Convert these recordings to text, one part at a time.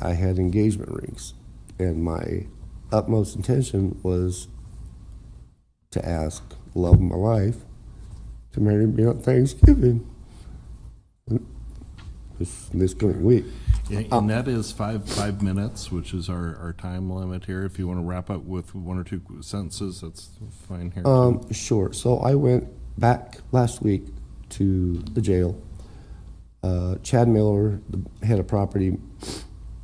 I had engagement rings, and my utmost intention was to ask love of my life to marry me on Thanksgiving. This, this coming week. Yeah, And that is five, five minutes, which is our, our time limit here. If you want to wrap up with one or two sentences, that's fine here. Um, sure. So I went back last week to the jail. Uh, Chad Miller, the head of property,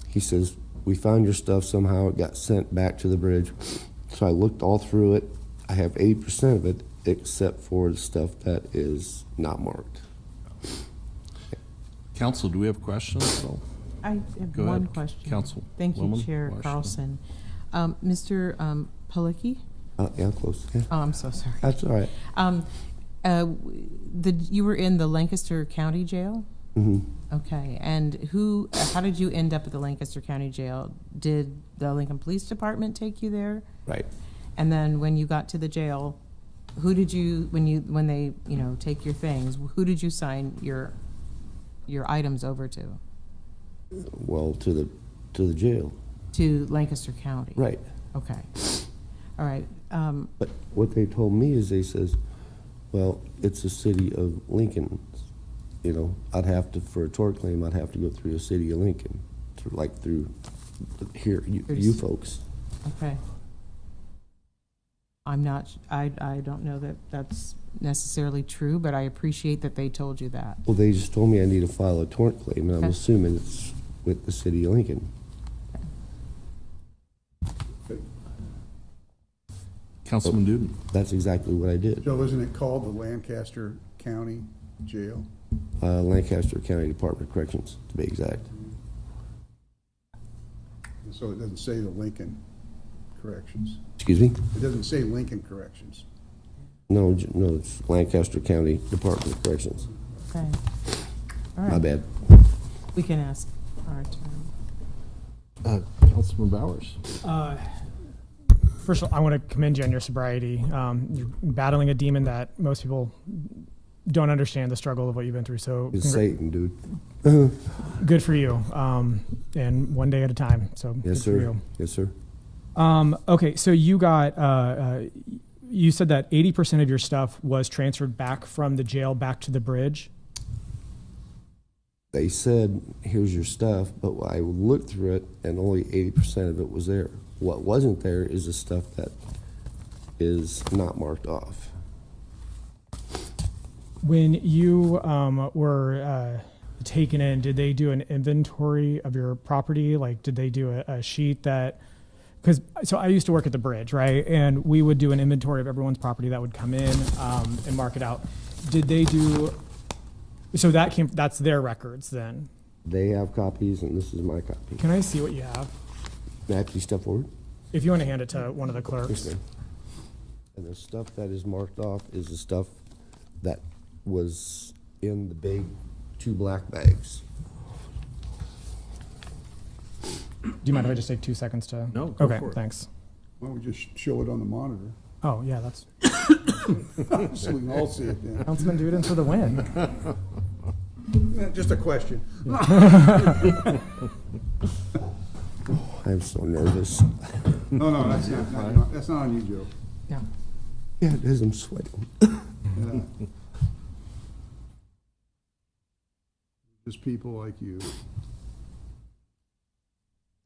he says, We found your stuff somehow. It got sent back to the bridge. So I looked all through it. I have 80% of it, except for the stuff that is not marked. Council, do we have questions? though? I have Go one ahead, question. Council Thank you, Woman Chair Washington. Carlson. Um, Mr. um, Pelkey? Uh, yeah, close. Yeah, Oh, I'm so sorry. that's all right. Um, uh, w- The, you were in the Lancaster County Jail? Okay, and who, how did you end up at the Lancaster County Jail? Did the Lincoln Police Department take you there? Right. And then when you got to the jail, who did you, when you, when they, you know, take your things, who did you sign your, your items over to? Well, to the to the jail. To Lancaster County? Right. Okay. All right. Um, But what they told me is they says, well, it's the city of Lincoln. You know, I'd have to, for a tort claim, I'd have to go through the city of Lincoln, through, like through here, you, you folks. okay. I'm not, I, I don't know that that's necessarily true, but I appreciate that they told you that. Well, they just told me I need to file a tort claim, and I'm Okay. assuming it's with the city of Lincoln. Councilman Duden? That's exactly what I did. Joe, isn't it called the Lancaster County Jail? Uh, Lancaster County Department of Corrections, to be exact. And So it doesn't say the Lincoln Corrections. Excuse me? It doesn't say Lincoln Corrections. No, j- no, it's Lancaster County Department of Corrections. Okay. All My right. bad. We can ask our attorney. Councilman Bowers? Uh, First of all, I want to commend you on your sobriety. Um, you're battling a demon that most people don't understand the struggle of what you've been through. So It's congr- Satan, dude. good for you. Um, and one day at a time. So Yes, good for sir. you. Yes, sir. Um, okay, so you got, uh, uh, you said that 80% of your stuff was transferred back from the jail back to the bridge. they said, here's your stuff, but I looked through it and only eighty percent of it was there. What wasn't there is the stuff that is not marked off. When you um, were uh, taken in, did they do an inventory of your property? Like, did they do a, a sheet that? Because so I used to work at the bridge, right? And we would do an inventory of everyone's property that would come in um, and mark it out. Did they do? So that came. That's their records then. They have copies and this is my copy. Can I see what you have? May I please step forward? If you want to hand it to one of the Yes, clerks. ma'am. And the stuff that is marked off is the stuff that was in the big two black bags. Do you mind if I just take two seconds to? No, go Okay. for it. Thanks. Why don't we just show it on the monitor? Oh yeah, that's So we can all see it then. Councilman Duden for the win. Eh, Just a question. I'm so nervous. No, no, that's not, not- that's not on you, Joe. No. Yeah, it is, I'm sweating. Yeah. Just people like you.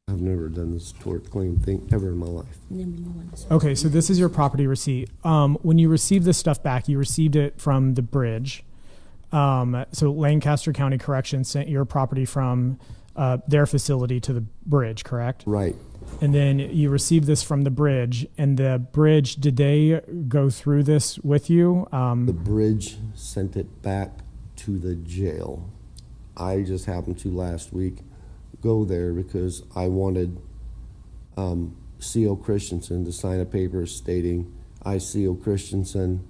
I've never done this tort claim thing ever in my life. Okay, so this is your property receipt. Um, when you received this stuff back, you received it from the bridge. Um, so Lancaster County Corrections sent your property from uh, their facility to the bridge, correct? Right, And then you received this from the bridge, and the bridge, did they go through this with you? The Um, bridge sent it back to the jail. I just happened to last week go there because I wanted um, C.O. Christensen to sign a paper stating, I, C.O. Christensen,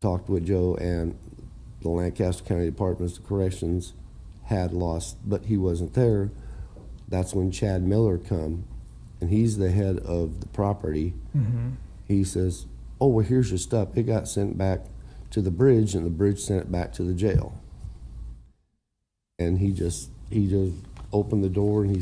talked with Joe and the Lancaster County Department of Corrections had lost, but he wasn't there. That's when Chad Miller come, and he's the head of the property he says, "Oh, well, here's your stuff. It got sent back to the bridge, and the bridge sent it back to the jail." And he just he just opened the door and he